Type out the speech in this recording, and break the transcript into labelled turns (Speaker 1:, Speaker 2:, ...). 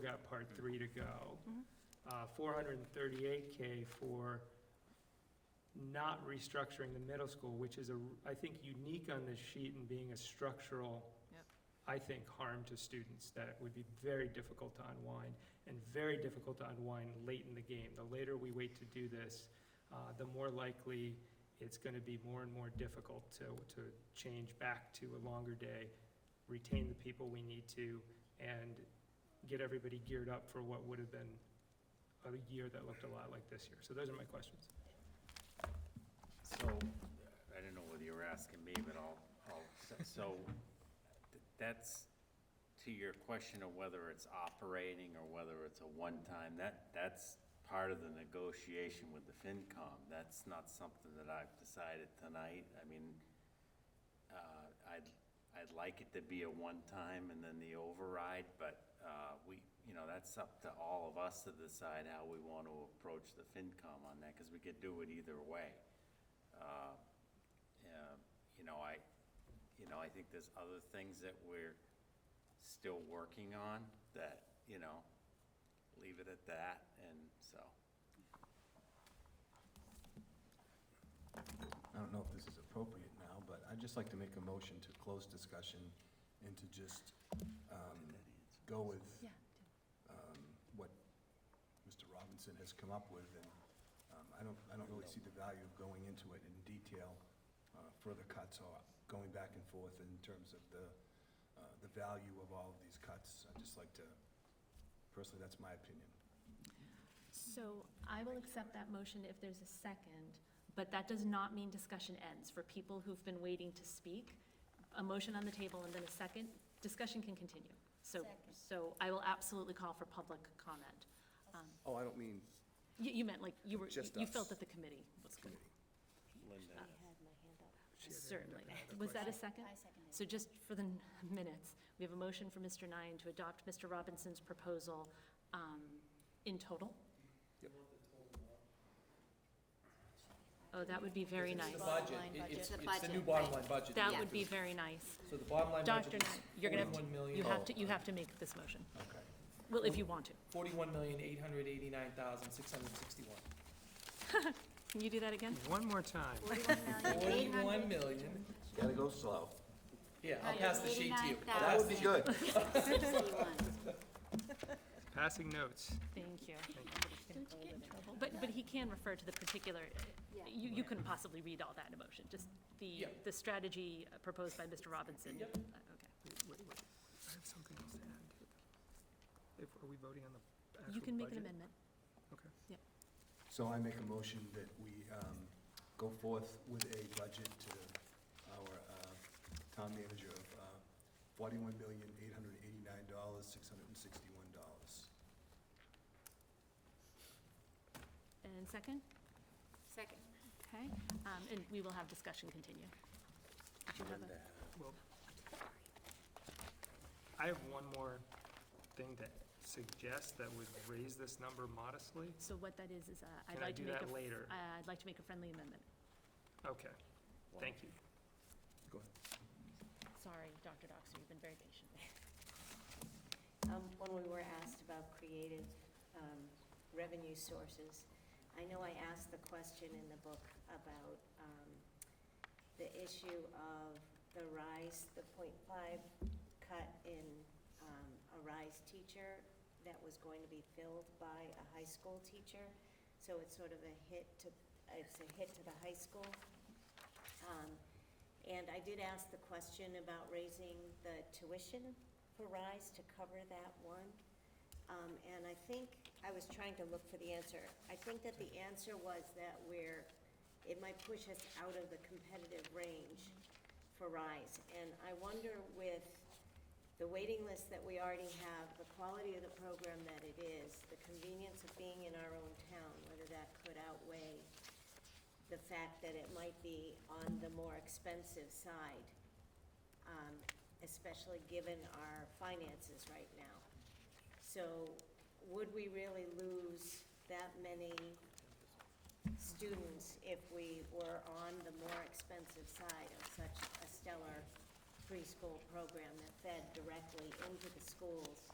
Speaker 1: got part three to go. Uh, 438K for not restructuring the middle school, which is, a I think, unique on this sheet and being a structural,
Speaker 2: Yep.
Speaker 1: I think, harm to students that would be very difficult to unwind and very difficult to unwind late in the game. The later we wait to do this, uh, the more likely it's going to be more and more difficult to, to change back to a longer day, retain the people we need to, and get everybody geared up for what would have been a year that looked a lot like this year. So those are my questions.
Speaker 3: So, I don't know whether you were asking me, but I'll, I'll, so- so, th- that's to your question of whether it's operating or whether it's a one-time, that, that's part of the negotiation with the FinCom. That's not something that I've decided tonight. I mean, uh, I'd, I'd like it to be a one-time and then the override, but, uh, we, you know, that's up to all of us to decide how we want to approach the FinCom on that, because we could do it either way. Uh, yeah, um, You know, I, you know, I think there's other things that we're still working on that, you know, leave it at that, and so.
Speaker 4: I don't know if this is appropriate now, but I'd just like to make a motion to close discussion and to just um, go with
Speaker 2: Yeah.
Speaker 4: um, what Mr. Robinson has come up with, and um, I don't, I don't really see the value of going into it in detail, uh, further cuts or going back and forth in terms of the, uh, the value of all of these cuts. I'd just like to, personally, that's my opinion.
Speaker 5: So I will accept that motion if there's a second, but that does not mean discussion ends. For people who've been waiting to speak, a motion on the table and then a second, discussion can continue. So,
Speaker 2: Second.
Speaker 5: so I will absolutely call for public comment. Um,
Speaker 4: Oh, I don't mean
Speaker 5: You, you meant like, you were,
Speaker 4: Just
Speaker 5: you
Speaker 4: us.
Speaker 5: felt that the committee was going
Speaker 4: committee.
Speaker 3: Linda,
Speaker 5: to, certainly. Was that a second?
Speaker 2: I seconded.
Speaker 5: So just for the n- minutes, we have a motion for Mr. Nine to adopt Mr. Robinson's proposal um, in total? Oh, that would be very
Speaker 6: It's the
Speaker 5: nice.
Speaker 6: budget.
Speaker 2: Bottom line
Speaker 6: It-
Speaker 2: budget.
Speaker 6: It's,
Speaker 2: The
Speaker 6: it's the new
Speaker 2: budget,
Speaker 6: bottom
Speaker 2: right.
Speaker 6: line budget.
Speaker 5: That would be very nice.
Speaker 6: So the bottom line
Speaker 5: Dr.
Speaker 6: budget
Speaker 5: Knight, you're going to have
Speaker 6: forty-one
Speaker 5: to,
Speaker 6: million-
Speaker 5: you have to, you have to make this motion.
Speaker 4: Okay.
Speaker 5: Well, if you want to.
Speaker 6: is forty-one million, eight hundred eighty-nine thousand, six hundred sixty-one.
Speaker 5: Can you do that again?
Speaker 1: One more time.
Speaker 6: Forty-one million,
Speaker 4: Gotta go slow.
Speaker 6: yeah, I'll pass the sheet to you.
Speaker 2: $189,000.
Speaker 6: I'll pass the sheet.
Speaker 4: good.
Speaker 1: Passing notes.
Speaker 5: Thank you. But, but he can refer to the particular, you, you couldn't possibly read all that in a motion, just the,
Speaker 6: Yeah.
Speaker 5: the strategy proposed by Mr. Robinson.
Speaker 6: Yep.
Speaker 5: Uh, Okay.
Speaker 1: Wait, wait, I have something else to add to the- if- Are we voting on the actual budget?
Speaker 5: You can make an amendment.
Speaker 1: Okay.
Speaker 4: So I make a motion that we um, go forth with a budget to our uh, town manager of uh, $41,889,661.
Speaker 5: And second?
Speaker 2: Second.
Speaker 5: Okay. Um, And we will have discussion continue. Did you have a-
Speaker 1: Well, I have one more thing to suggest that would raise this number modestly.
Speaker 5: So what that is, is uh, I'd
Speaker 1: Can I
Speaker 5: like to
Speaker 1: do
Speaker 5: make a...
Speaker 1: that later?
Speaker 5: uh, I'd like to make a friendly amendment.
Speaker 1: Okay, thank you.
Speaker 4: Go ahead.
Speaker 5: Sorry, Dr. Doxer, you've been very patient.
Speaker 7: Um, When we were asked about creative um, revenue sources, I know I asked the question in the book about um, the issue of the RISE, the .5 cut in um, a RISE teacher that was going to be filled by a high school teacher. So it's sort of a hit to, it's a hit to the high school. Um, And I did ask the question about raising the tuition for RISE to cover that one. Um, And I think, I was trying to look for the answer. I think that the answer was that we're, it might push us out of the competitive range for RISE. And I wonder with the waiting list that we already have, the quality of the program that it is, the convenience of being in our own town, whether that could outweigh the fact that it might be on the more expensive side, um, especially given our finances right now. So would we really lose that many students if we were on the more expensive side of such a stellar preschool program that fed directly into the schools